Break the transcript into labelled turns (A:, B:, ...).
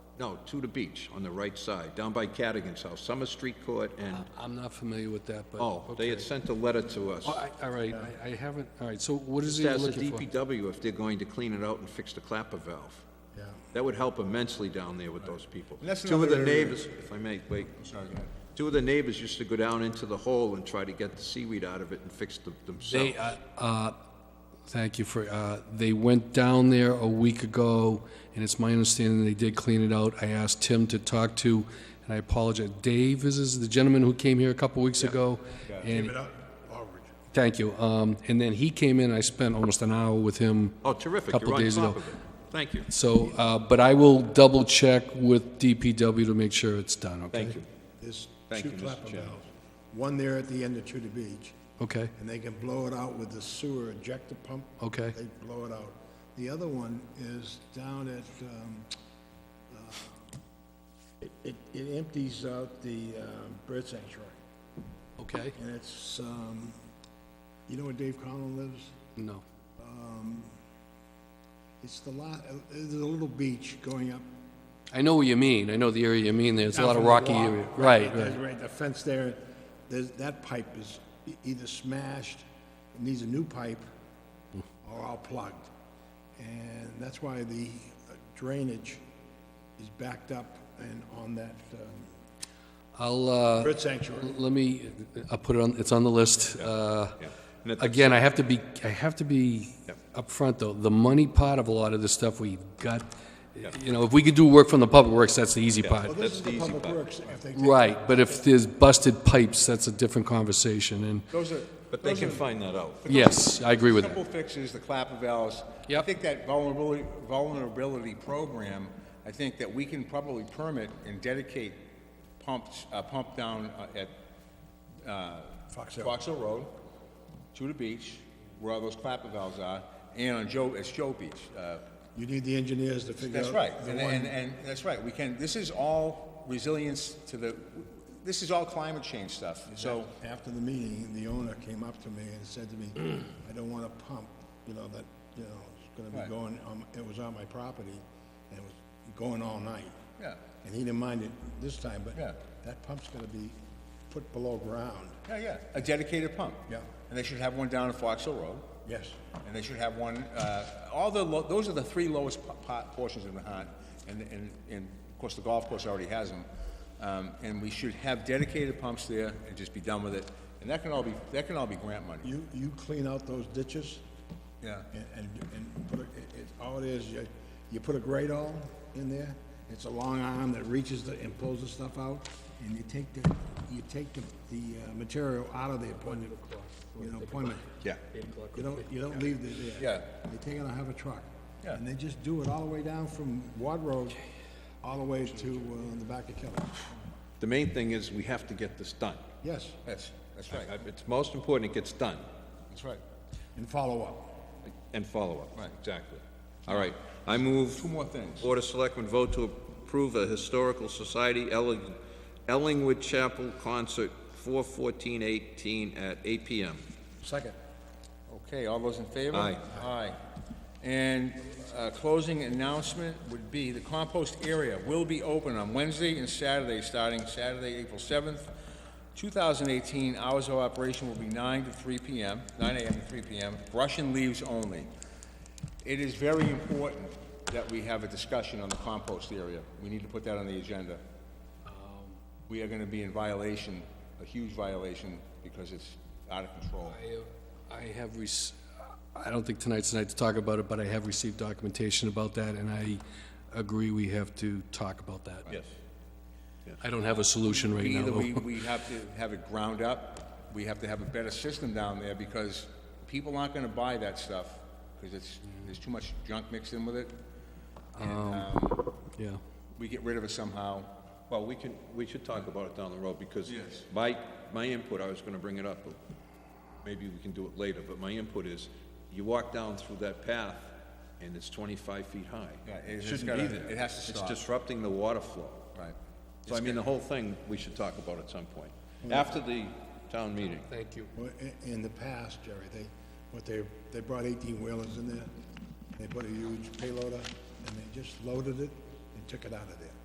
A: No, to the beach, on the right side, down by Cadigan's house, Summer Street Court and,
B: I'm not familiar with that, but...
A: oh, they had
B: Ah, okay.
A: sent a letter to us.
B: Oh, I- All right, I- I haven't, all right, so what is
A: Just
B: he
A: ask the
B: looking for?
A: DPW if they're going to clean it out and fix the clapper valve.
C: Yeah.
A: That would help immensely down there with those people.
C: And that's
A: Two of the
C: another area-
A: neighbors, if I may, wait.
C: Sorry, go ahead.
A: Two of the neighbors used to go down into the hole and try to get the seaweed out of it and fix them
B: They,
A: themselves.
B: uh, uh, thank you for, uh, they went down there a week ago, and it's my understanding they did clean it out. I asked Tim to talk to, and I apologize, Dave is- is the gentleman who came here a couple weeks ago. and-
C: Give it up, Aldridge.
B: Thank you. Um, And then he came in, I spent almost an hour with him.
A: Oh, terrific,
B: Couple
A: you're on
B: days
A: top
B: ago.
A: of it. Thank you.
B: So, uh, but I will double-check with DPW to make sure it's done, okay?
A: Thank you.
C: There's
A: Thank
C: two
A: you, Mr.
C: clapper
A: Chairman.
C: valves, one there at the end of Tudor Beach,
B: Okay,
C: and they can blow it out with the sewer ejector pump.
B: Okay.
C: They blow it out. The other one is down at, um, uh, it- it, it empties out the um, bird sanctuary,
B: okay?
C: and it's, um, you know where Dave Conlon lives?
B: No.
C: It's the lot, uh, there's a little beach going up
B: I know what you mean, I know the area you mean, there's a
C: Down
B: lot of
C: from the
B: rocky
C: wall.
B: area. Right,
C: There's
B: right,
C: Right, the fence there, there's, that pipe is e- either smashed, it needs a new pipe, or all plugged. And that's why the uh, drainage is backed up and on that um,
B: I'll, uh,
C: bird sanctuary.
B: Let me, I'll put it on, it's on the list. Uh,
A: Yeah. And at the-
B: Again, I have to be, I have to be upfront, though. The money part of a lot of this stuff we've got, you know, if we could do work from the public works, that's the easy
C: Well,
B: part.
C: this
A: That's
C: is
A: the
C: the
A: easy
C: public
A: part.
C: works, if they take.
B: Right, but if there's busted pipes, that's a different conversation, and,
D: Those are.
A: But they
D: those
A: can
D: are-
A: find that out.
B: yes, I agree with
D: Simple
B: that.
D: fixes, the clapper valves.
B: Yep.
D: I think that vulnerability, vulnerability program, I think that we can probably permit and dedicate pumps, uh, pump down uh, at uh,
C: Fox Hill.
D: Fox Hill Road, to the beach, where all those clapper valves are, and on Joe, it's Joe Beach. uh,
C: You need the engineers to figure out.
D: That's right,
C: the
D: and,
C: one-
D: and, and, that's right, we can, this is all resilience to the, this is all climate change stuff, so,
C: After the meeting, the owner came up to me and said to me, I don't want a pump, you know, that, you know, it's gonna be
D: Right.
C: going, on- it was on my property, and it was going all night.
D: Yeah.
C: And he didn't mind it this time, but
D: Yeah.
C: that pump's gonna be put below ground.
D: yeah, yeah, a dedicated pump.
C: Yeah.
D: And they should have one down at Fox Hill Road.
C: Yes.
D: And they should have one, uh, all the, lo- those are the three lowest po- po- portions in Nahat, and, and, and of course, the golf course already has them. Um, and we should have dedicated pumps there and just be done with it, and that can all be, that can all be grant money,
C: You, you clean out those ditches
D: yeah.
C: and, and, and put, a- it, it, all it is, you, you put a grate all in there, it's a long arm that reaches the, and pulls the stuff out, and you take the, you take the, the uh, material out of the appointment, you know, appointment.
D: Yeah.
C: You don't, you don't leave it there.
D: Yeah.
C: They take it out of a truck.
D: Yeah.
C: And they just do it all the way down from Ward Road, all the way to, uh, the back of Kelly.
A: The main thing is, we have to get this done.
C: Yes,
D: That's, that's
A: I-
D: right,
A: It's most important it gets done,
D: that's right.
C: and follow up.
A: and follow-up.
D: Right.
A: Exactly. All right, I move...
D: Two more things.
A: Board of Selectmen vote to approve a Historical Society Elling- Ellingwood Chapel Concert, 4/14/18 at 8 PM.
C: Second.
D: Okay, all those in favor?
A: Aye.
D: Aye. And uh, closing announcement would be the compost area will be open on Wednesday and Saturday, starting Saturday, April 7th, 2018. Hours of operation will be 9 to 3 p.m., 9 a.m. to 3 p.m., brush and leaves only. It is very important that we have a discussion on the compost area. We need to put that on the agenda. We are going to be in violation, a huge violation, because it's out of control.
B: I have rec, I don't think tonight's the night to talk about it, but I have received documentation about that, and I agree we have to talk about that.
A: Yes.
B: I don't have a solution right now.
D: Either
B: though.
D: we, we have to have it ground up, we have to have a better system down there, because people aren't gonna buy that stuff, because it's,
A: Mm.
D: there's too much junk mixed in with it.
B: Yeah.
D: We get rid of it somehow.
A: Well, we can, we should talk about it down the road, because
D: Yes.
A: my, my input, I was gonna bring it up, but maybe we can do it later, but my input is, you walk down through that path, and it's 25 feet high.
D: Yeah, it- it's
A: Shouldn't
D: gotta-
A: be there.
D: it has to stop.
A: It's disrupting the water flow.
D: Right.
A: So I mean, the whole thing, we should talk about at some point,
D: Mm.
A: after the town meeting.
B: Thank you.
C: Well, i- In the past, Jerry, they, what they, they brought eighteen wheelers in there, they put a huge payloader, and they just loaded it and took it out of there.